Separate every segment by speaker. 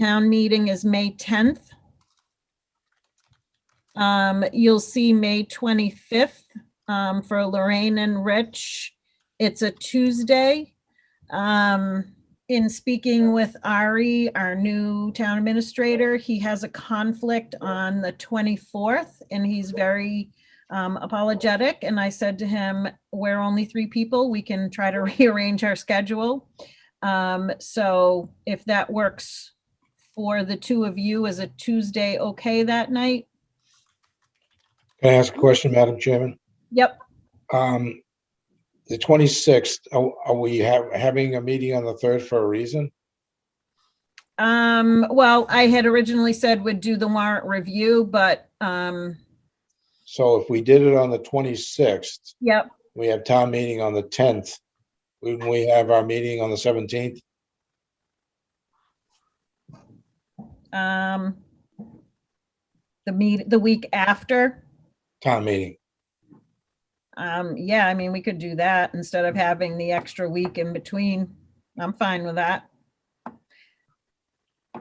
Speaker 1: Town meeting is May 10th. Um, You'll see May 25th um, for Lorraine and Rich. It's a Tuesday. Um, In speaking with Ari, our new town administrator, he has a conflict on the 24th and he's very um, apologetic. And I said to him, we're only three people. We can try to rearrange our schedule. Um, so if that works for the two of you, is a Tuesday okay that night?
Speaker 2: Can I ask a question, Madam Chairman?
Speaker 1: Yep,
Speaker 2: Um, The 26th, are are we ha- having a meeting on the 3rd for a reason?
Speaker 1: um, well, I had originally said would do the warrant review, but, um,
Speaker 2: So if we did it on the 26th,
Speaker 1: yep,
Speaker 2: we have town meeting on the 10th. Wouldn't we have our meeting on the 17th?
Speaker 1: um, the meet, the week after,
Speaker 2: Town meeting.
Speaker 1: um, yeah, I mean, we could do that instead of having the extra week in between. I'm fine with that.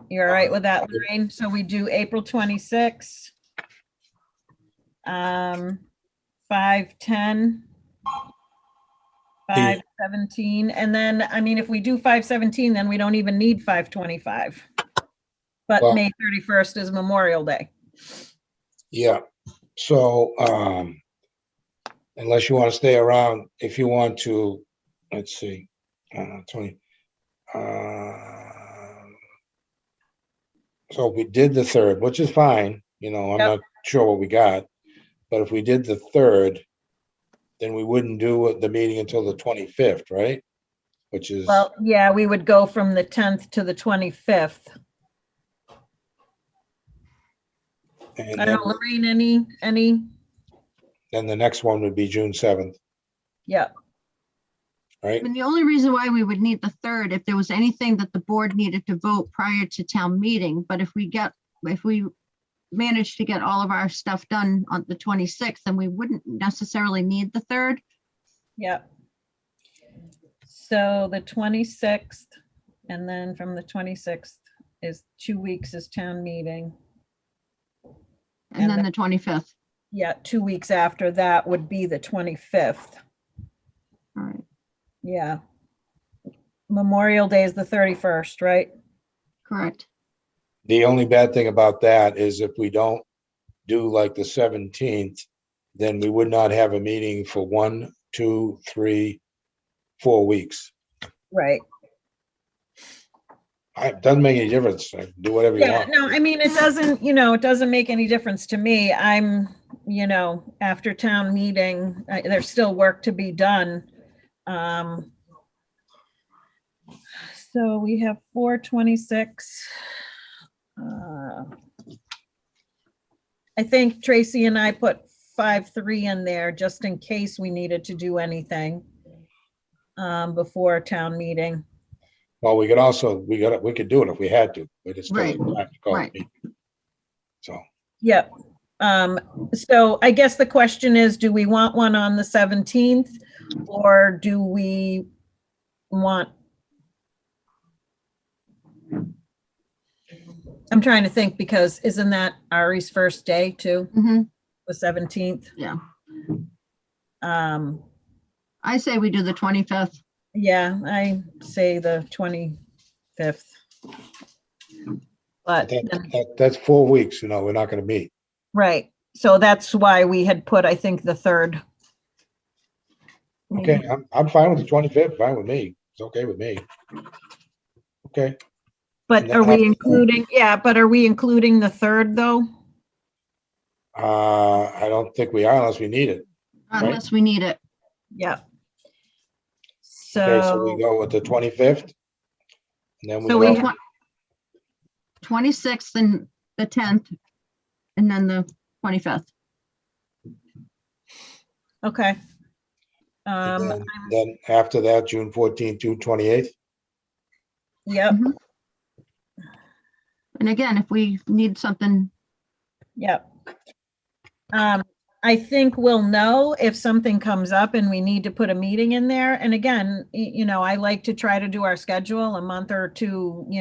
Speaker 1: You're all right with that, Lorraine? So we do April 26. Um, 5:10. 5:17, and then, I mean, if we do 5:17, then we don't even need 5:25. But
Speaker 2: Well-
Speaker 1: May 31st is Memorial Day.
Speaker 2: Yeah, so um, unless you want to stay around, if you want to, let's see, uh, Tony. uh, So if we did the third, which is fine, you know, I'm
Speaker 1: Yep.
Speaker 2: not sure what we got. But if we did the third, then we wouldn't do the meeting until the twenty-fifth, right? Which is,
Speaker 1: Well, yeah, we would go from the 10th to the 25th.
Speaker 2: and
Speaker 1: I
Speaker 2: then-
Speaker 1: don't, know, Lorraine, any, any?
Speaker 2: then the next one would be June seventh,
Speaker 1: Yep,
Speaker 2: right?
Speaker 3: And the only reason why we would need the third, if there was anything that the board needed to vote prior to town meeting, but if we get, if we manage to get all of our stuff done on the 26th, then we wouldn't necessarily need the third.
Speaker 1: yep. So the 26th, and then from the 26th is two weeks is town meeting.
Speaker 3: And
Speaker 1: And
Speaker 3: then
Speaker 1: the-
Speaker 3: the 25th.
Speaker 1: Yeah, two weeks after that would be the 25th.
Speaker 3: All right,
Speaker 1: Yeah. Memorial Day is the 31st, right?
Speaker 3: correct.
Speaker 2: The only bad thing about that is if we don't do like the seventeenth, then we would not have a meeting for one, two, three, four weeks.
Speaker 1: Right.
Speaker 2: I, doesn't make any difference. like, Do whatever you
Speaker 1: Yeah,
Speaker 2: want.
Speaker 1: no, I mean, it doesn't, you know, it doesn't make any difference to me. I'm, you know, after town meeting, I- there's still work to be done. Um So we have four twenty-six. I think Tracy and I put five, three in there just in case we needed to do anything um before town meeting.
Speaker 2: Well, we could also, we got, we could do it if we had to, but it's.
Speaker 3: Right, right.
Speaker 2: So,
Speaker 1: Yep. Um, so I guess the question is, do we want one on the seventeenth? Or do we want? I'm trying to think because isn't that Ari's first day too,
Speaker 3: Mhm.
Speaker 1: the seventeenth?
Speaker 3: Yeah.
Speaker 1: Um,
Speaker 3: I say we do the 25th.
Speaker 1: yeah, I say the twenty-fifth. But
Speaker 2: that,
Speaker 1: then
Speaker 2: that, that's four weeks, you know, we're not gonna meet.
Speaker 1: Right, so that's why we had put, I think, the third.
Speaker 2: Okay,
Speaker 1: meeting.
Speaker 2: I'm, I'm fine with the twenty-fifth, fine with me. It's okay with me. Okay,
Speaker 1: But are we including, yeah, but are we including the third, though?
Speaker 2: uh, I don't think we are unless we need it.
Speaker 3: Unless we need it.
Speaker 1: Yeah.
Speaker 2: Okay, so we
Speaker 1: So,
Speaker 2: go with the twenty-fifth. And then we
Speaker 1: So we
Speaker 2: go,
Speaker 1: have-
Speaker 3: Twen- 26th and the 10th, and then the 25th.
Speaker 1: okay.
Speaker 2: and
Speaker 1: Um,
Speaker 2: then- then after that, June fourteenth, June twenty-eighth.
Speaker 1: yep,
Speaker 3: And again, if we need something,
Speaker 1: yep. Um, I think we'll know if something comes up and we need to put a meeting in there. And again, y- you know, I like to try to do our schedule a month or two, you